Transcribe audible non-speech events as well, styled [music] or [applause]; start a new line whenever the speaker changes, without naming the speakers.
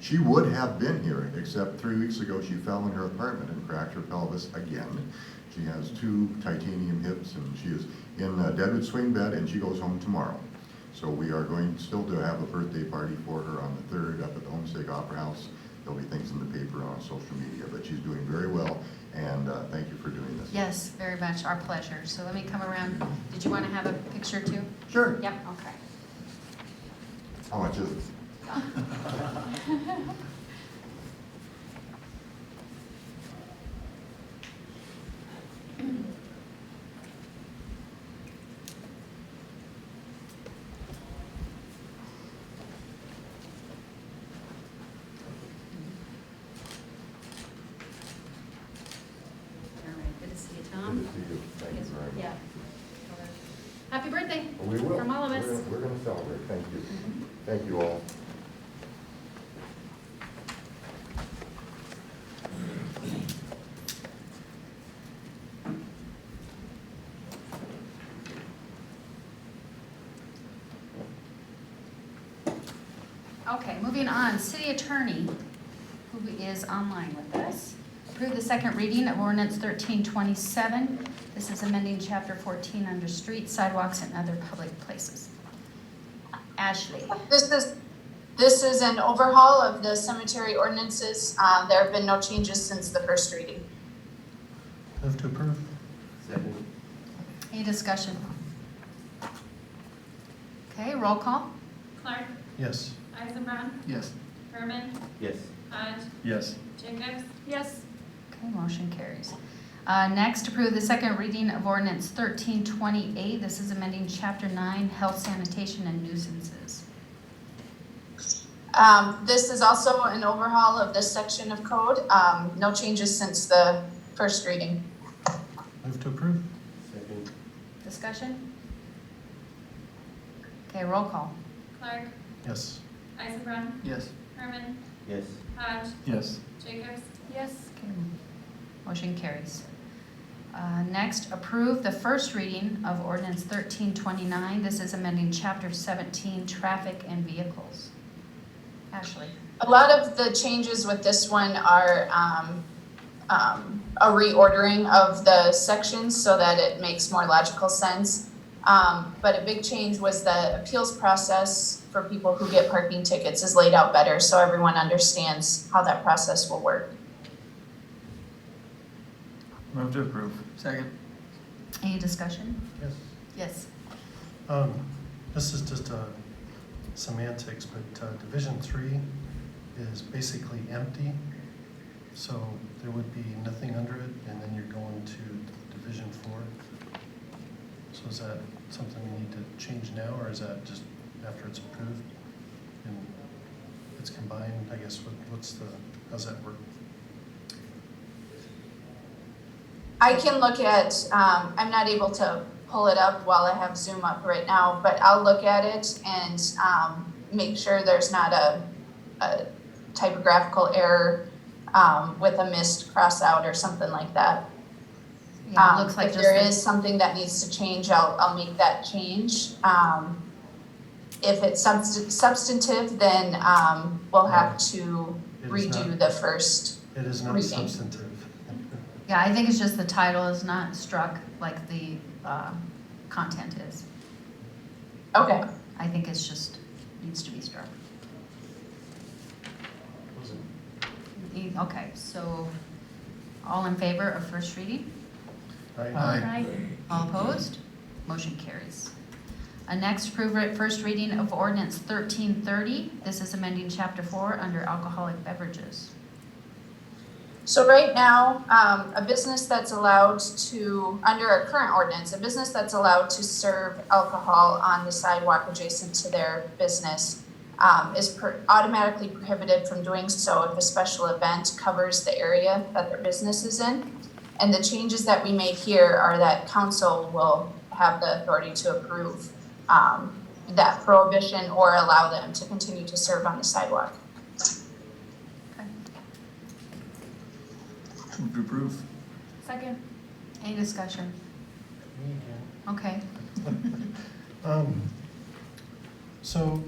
She would have been here, except three weeks ago, she fell in her apartment and cracked her pelvis again. She has two titanium hips, and she is in a deadwood swing bed, and she goes home tomorrow. So we are going still to have a birthday party for her on the third up at the Homestead Opera House. There'll be things in the paper on social media, but she's doing very well, and uh, thank you for doing this.
Yes, very much, our pleasure. So let me come around. Did you want to have a picture too?
Sure. Oh,
Yep, okay.
How much is it?
All right, good to see you,
Good
Tom.
to see you. Thank you very much.
Yeah. Happy birthday.
We will.
From all of
We're
us.
gonna- We're going to celebrate, thank you. Thank you all.
Okay, moving on, city attorney, who is online with us. Approve the second reading of ordinance thirteen twenty-seven. This is amending chapter fourteen under streets, sidewalks, and other public places. Ashley,
This is, this is an overhaul of the cemetery ordinances. Uh, there have been no changes since the first reading.
Move to approve.
Second.
any discussion? Okay, roll call.
Clark,
Yes.
Eisenbrod,
Yes.
Herman,
Yes.
Hodge,
Yes.
Jacobs. Yes.
Okay, motion carries. Uh, Next, approve the second reading of ordinance thirteen twenty-eight. This is amending chapter nine, health sanitation and nuisances.
Um, this is also an overhaul of this section of code. Um, no changes since the first reading.
Move to approve.
Second.
Discussion? Okay, roll call.
Clark,
Yes.
Eisenbrod,
Yes.
Herman,
Yes.
Hodge,
Yes.
Jacobs. Yes.
Okay, Motion carries. Uh, Next, approve the first reading of ordinance thirteen twenty-nine. This is amending chapter seventeen, traffic and vehicles. Ashley?
A lot of the changes with this one are, um, um, a reordering of the sections so that it makes more logical sense. Um, but a big change was the appeals process for people who get parking tickets is laid out better, so everyone understands how that process will work.
Move to approve. Second.
Any discussion?
Yes.
Yes.
Um, this is just, uh, semantics, but, uh, Division Three is basically empty. So there would be nothing under it, and then you're going to Division Four. So is that something we need to change now, or is that just after it's approved? And it's combined, I guess, what, what's the, how's that work?
I can look at, um, I'm not able to pull it up while I have Zoom up right now, but I'll look at it and, um, make sure there's not a, a typographical error, um, with a missed cross out or something like that.
Yeah, it
Um,
looks like just.
If there
the-
is something that needs to change, I'll, I'll make that change. Um, if it's subst- substantive, then, um, we'll have to
It is not-
redo the first.
It is not
Reading.
substantive. [laughs]
Yeah, I think it's just the title is not struck like the uh, content is.
Okay,
I think it's just, needs to be struck. E- Okay, so all in favor of first reading?
Right?
All opposed? Motion carries. Uh, Next, approve re- first reading of ordinance 1330. This is amending Chapter 4 under alcoholic beverages.
So right now, um, a business that's allowed to, under our current ordinance, a business that's allowed to serve alcohol on the sidewalk adjacent to their business um, is per- automatically prohibited from doing so if a special event covers the area that their business is in. And the changes that we made here are that council will have the authority to approve um, that prohibition or allow them to continue to serve on the sidewalk.
Move to approve.
Second.
Any discussion? Okay.
Um, so